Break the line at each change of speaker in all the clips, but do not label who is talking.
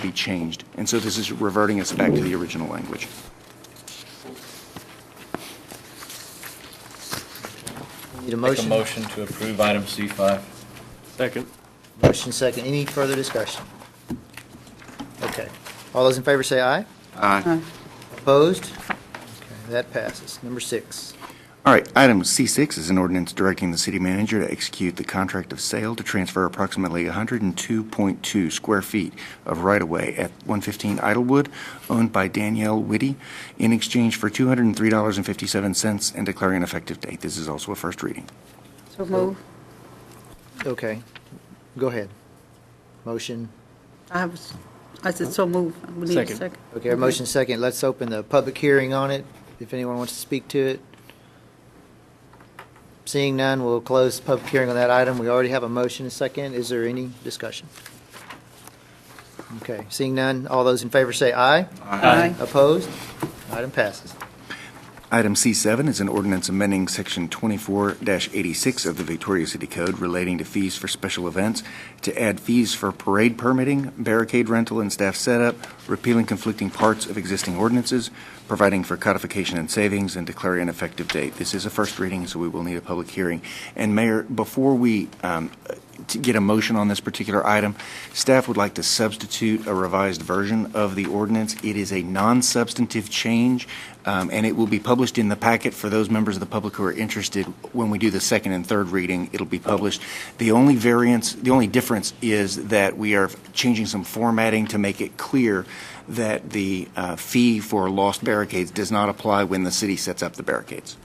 be changed. And so this is reverting us back to the original language.
Need a
Make a
motion?
motion to approve item C5.
Second.
Motion second. Any further discussion? Okay. All those in favor say aye.
Aye.
Opposed? Okay, That passes. Number six.
All right, item C6 is an ordinance directing the city manager to execute the contract of sale to transfer approximately 102.2 square feet of right-of-way at 115 Idlewood, owned by Danielle Whitty, in exchange for $203.57 and declaring an effective date. This is also a first reading.
So move.
Okay. Go ahead. Motion.
I was, I said so move. We need a
Second.
second.
Okay, our motion second. Let's open the public hearing on it, if anyone wants to speak to it. Seeing none, we'll close the public hearing on that item. We already have a motion and second. Is there any discussion? Okay, seeing none, all those in favor say aye.
Aye.
Opposed? Item passes.
Item C7 is an ordinance amending Section 24-86 of the Victoria City Code relating to fees for special events to add fees for parade permitting, barricade rental and staff setup, repealing conflicting parts of existing ordinances, providing for codification and savings, and declaring an effective date. This is a first reading, so we will need a public hearing. And Mayor, before we um, to get a motion on this particular item. Staff would like to substitute a revised version of the ordinance. It is a non-substantive change, um, and it will be published in the packet for those members of the public who are interested. When we do the second and third reading, it'll be published. The only variance, the only difference is that we are changing some formatting to make it clear that the uh, fee for lost barricades does not apply when the city sets up the barricades.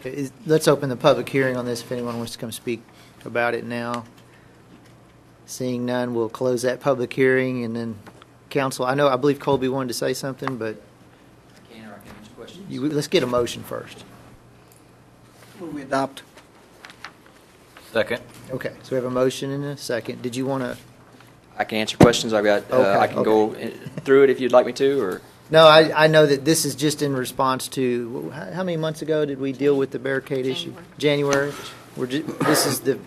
Okay, is- Let's open the public hearing on this, if anyone wants to come speak about it now. Seeing none, we'll close that public hearing, and then, council, I know, I believe Colby wanted to say something, but
Can or I can answer questions?
you- let's get a motion first.
Will we adopt?
Second.
Okay, so we have a motion and a second. Did you want to,
I can answer questions. I've got, uh, I
Okay,
can go in- through it if you'd like me to, or?
no, I, I know that this is just in response to, how how many months ago did we deal with the barricade issue? January. We're, ju- this is the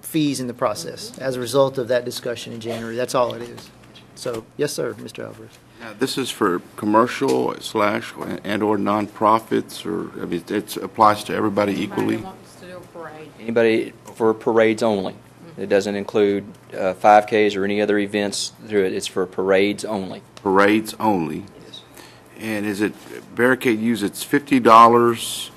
fees in the process as a result of that discussion in January. That's all it is. So, yes, sir, Mr. Alvarez.
Now, This is for commercial slash and/or nonprofits, or, I mean, it applies to everybody equally?
Anybody for parades only. It doesn't include uh, 5Ks or any other events through it. It's for parades only.
Parades only? And is it barricade use, it's fifty dollars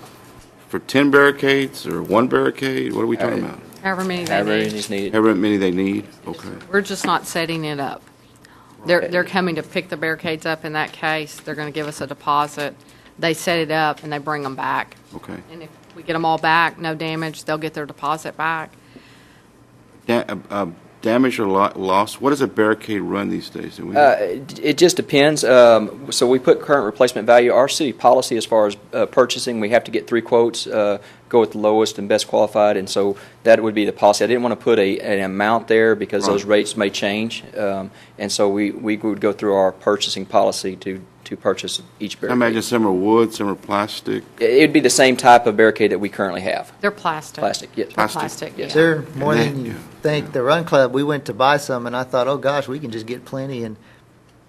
for ten barricades, or one barricade? What are we
Uh,
talking about?
However many they
However, it
need.
is needed.
However many they need? Okay.
We're just not setting it up. They're, they're coming to pick the barricades up in that case. They're going to give us a deposit. They set it up and they bring them back.
Okay.
And if we get them all back, no damage, they'll get their deposit back.
Da- uh, uh, Damage or lo- loss, what does a barricade run these days? Do we-
Uh, It it just depends. Um, So we put current replacement value. Our city policy as far as uh, purchasing, we have to get three quotes, uh, go with the lowest and best qualified, and so that would be the policy. I didn't want to put a, an amount there because those
Right.
rates may change. Um, And so we, we would go through our purchasing policy to, to purchase each
I imagine
barricade.
some are wood, some are plastic.
It- It'd be the same type of barricade that we currently have.
They're plastic.
Plastic, yes.
They're
Plastic.
plastic,
Yes.
yeah.
They're more
And
than
they-
you
yeah,
think. The Run Club, we went to buy some, and I thought, oh gosh, we can just get plenty, and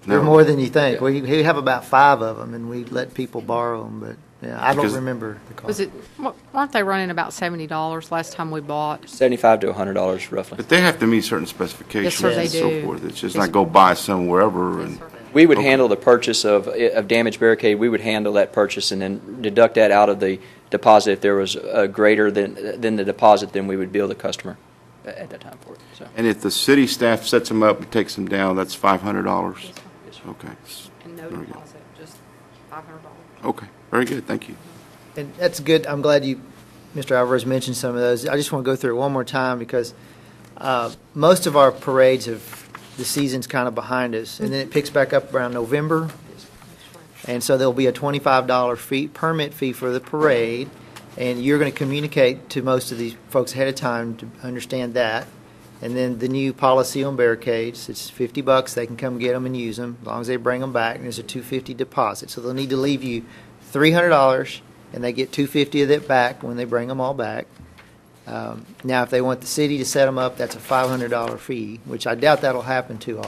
they're
No.
more than you think.
Yeah.
We, we have about five of them, and we let people borrow them, but yeah, I don't
Because-
remember the cost.
Was it, wa- weren't they running about $70 last time we bought?
Seventy-five to a hundred dollars roughly.
But they have to meet certain specifications
they
and so
do.
forth. It's just
Yes,
not go buy some wherever and.
We would
Okay.
handle the purchase of, of damaged barricade, we would handle that purchase and then deduct that out of the deposit if there was a greater than, than the deposit, then we would bill the customer at that time for it, so.
And if the city staff sets them up and takes them down, that's five hundred dollars? Okay,
And no
There we go.
deposit, just $500.
okay, very good, thank you.
And that's good. I'm glad you, Mr. Alvarez, mentioned some of those. I just want to go through it one more time because uh, most of our parades have, the season's kind of behind us, and then it picks back up around November. And so there'll be a $25 fee, permit fee for the parade, and you're going to communicate to most of these folks ahead of time to understand that. And then the new policy on barricades, it's 50 bucks, they can come get them and use them, as long as they bring them back, and there's a 250 deposit. So they'll need to leave you $300, and they get 250 of it back when they bring them all back. Um, Now, if they want the city to set them up, that's a $500 fee, which I doubt that'll happen too often.